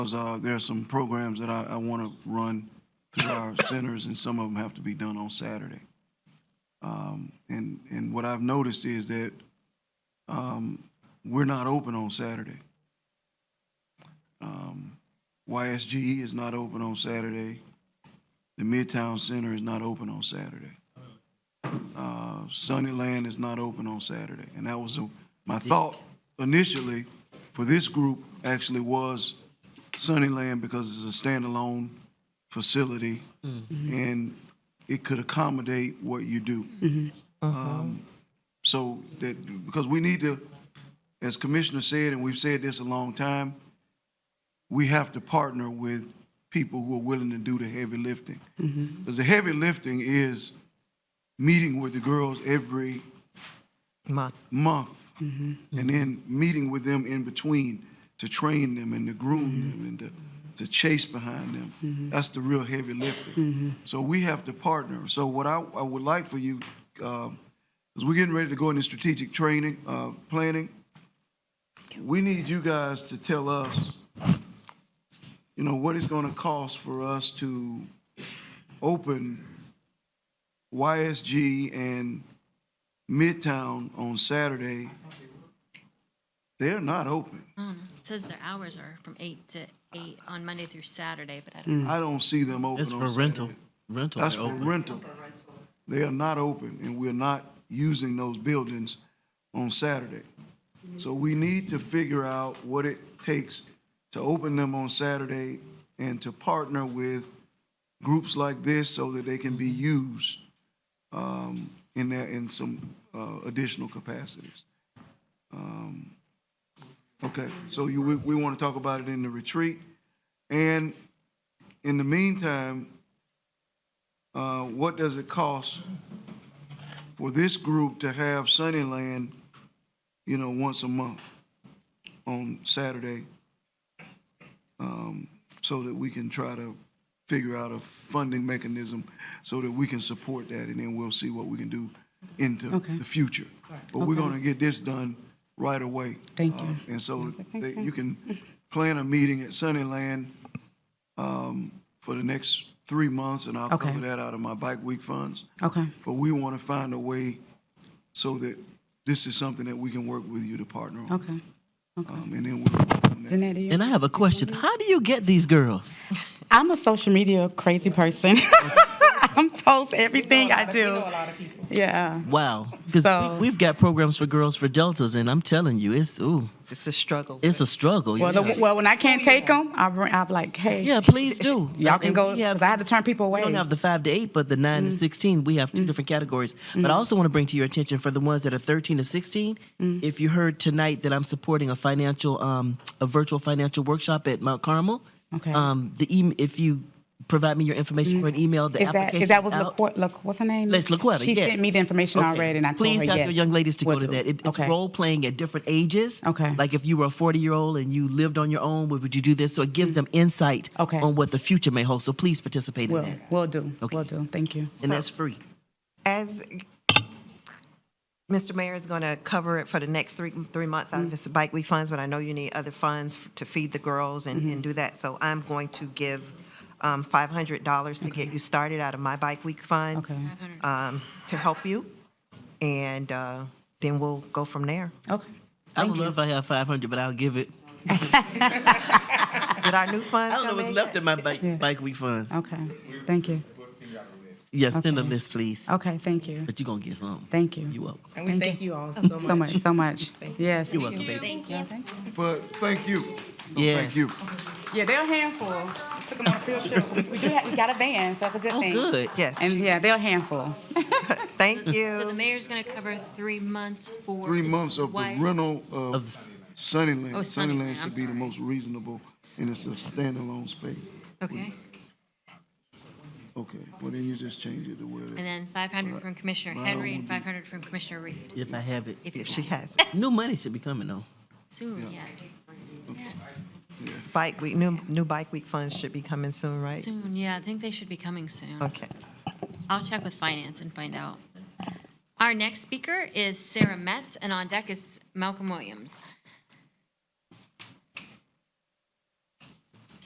Because uh, there are some programs that I, I want to run through our centers, and some of them have to be done on Saturday. Um, and, and what I've noticed is that um, we're not open on Saturday. Um, YSGE E is not open on Saturday. The Midtown Center is not open on Saturday. Uh, Sunnyland is not open on Saturday. And that was a- my thought initially for this group actually was Sunnyland because it's a standalone facility and it could accommodate what you do. Um, So that, because we need to, as Commissioner said, and we've said this a long time, we have to partner with people who are willing to do the heavy lifting. Because the heavy lifting is meeting with the girls every month. month and then meeting with them in between to train them and to groom them and to, to chase behind them. That's the real heavy lifting. So we have to partner. So what I, I would like for you, because we're getting ready to go into strategic training, uh, planning. We need you guys to tell us, you know, what it's going to cost for us to open YSG and Midtown on Saturday, they're not open. Says their hours are from eight to eight on Monday through Saturday, but I don't. I don't see them open. Mm. That's on for rental, Saturday. rental. That's they're for open. rental. They are not open, and we're not using those buildings on Saturday. So we need to figure out what it takes to open them on Saturday and to partner with groups like this so that they can be used um, in that, in some uh, additional capacities. Um, Okay, so you, we, we want to talk about it in the retreat. And in the meantime, uh, what does it cost for this group to have Sunnyland, you know, once a month on Saturday? Um, So that we can try to figure out a funding mechanism so that we can support that, and then we'll see what we can do into Okay. the future. But we're Okay. gonna get this done right away. Thank you. Uh, And so they- you can plan a meeting at Sunnyland um, for the next three months, and I'll Okay. cover that out of my bike week funds. Okay, But we want to find a way so that this is something that we can work with you to partner on. okay. Um, And then we'll, Janetta, you- And I have a question. How do you get these girls? I'm a social media crazy person. I'm post everything I do. Yeah. Wow. Because So- we, have got programs for girls for deltas, and I'm telling you, it's ooh, It's a struggle. it's a struggle. Well, the, yes. well, when I can't take them, I bring, I'm like, hey, yeah, please do. y'all can And go. we have- 'cause I had to turn people away. We don't have the five to eight, but the nine Mm. to sixteen, we have two different categories. But I also want to bring to your attention for the ones that are thirteen to sixteen. Mm. If you heard tonight that I'm supporting a financial, um, a virtual financial workshop at Mount Carmel. Okay. Mm. Um, the em if you provide me your information for an email, the is that application is that was out. LaQu- Look, what's her name? Les LaQuetta, She yes. sent me the information Okay. already, and I told Please her have yes. your young ladies to go What's- to that. It, it's okay. role playing at different ages. Okay. Like if you were a 40 year old and you lived on your own, would would you do this? So it gives them insight Okay. on what the future may hold. So please participate in Will that. will do. Okay. Will do. Thank you. And that's free. As Mr. Mayor is going to cover it for the next three, three months out of his bike week funds, but I know you need other funds f- to feed the girls and, and do that. So I'm going to give um, $500 to get you started out of my bike week funds Okay. um, to help you. And uh, then we'll go from there. Okay. I don't know if I have 500, but I'll give it. Did our new funds I don't know come what's in left yet? in my bike, bike week funds. Okay. Thank you. Yes, send a list, please. Okay. Thank you. But you're going to get home. Thank you. You're welcome. And we thank you all so much. So much. So much. Yes. You're welcome, baby. but thank you. Yes. Thank you. Yeah, they're a handful. Took them on a field trip. We do have, we got a van, so it's a good Oh, thing. good. And Yes, yeah, they're a handful. thank So the you. mayor's gonna cover three months for. Three months of the Why- rental of Of- Sunnyland. Oh, Sunnyland, Sunnyland I'm should be the sorry. most reasonable, and it's a standalone space. Okay, Okay, well then you just change it to where. it- and then five hundred from Commissioner Henry and five hundred from Commissioner Reed. If I have it. If you If she have, has New money should be coming, though. soon, yes, bike week, new, new bike week funds should be coming soon, right? soon, yeah, I think they should be coming soon. Okay. I'll check with finance and find out. Our next speaker is Sarah Metz, and on deck is Malcolm Williams.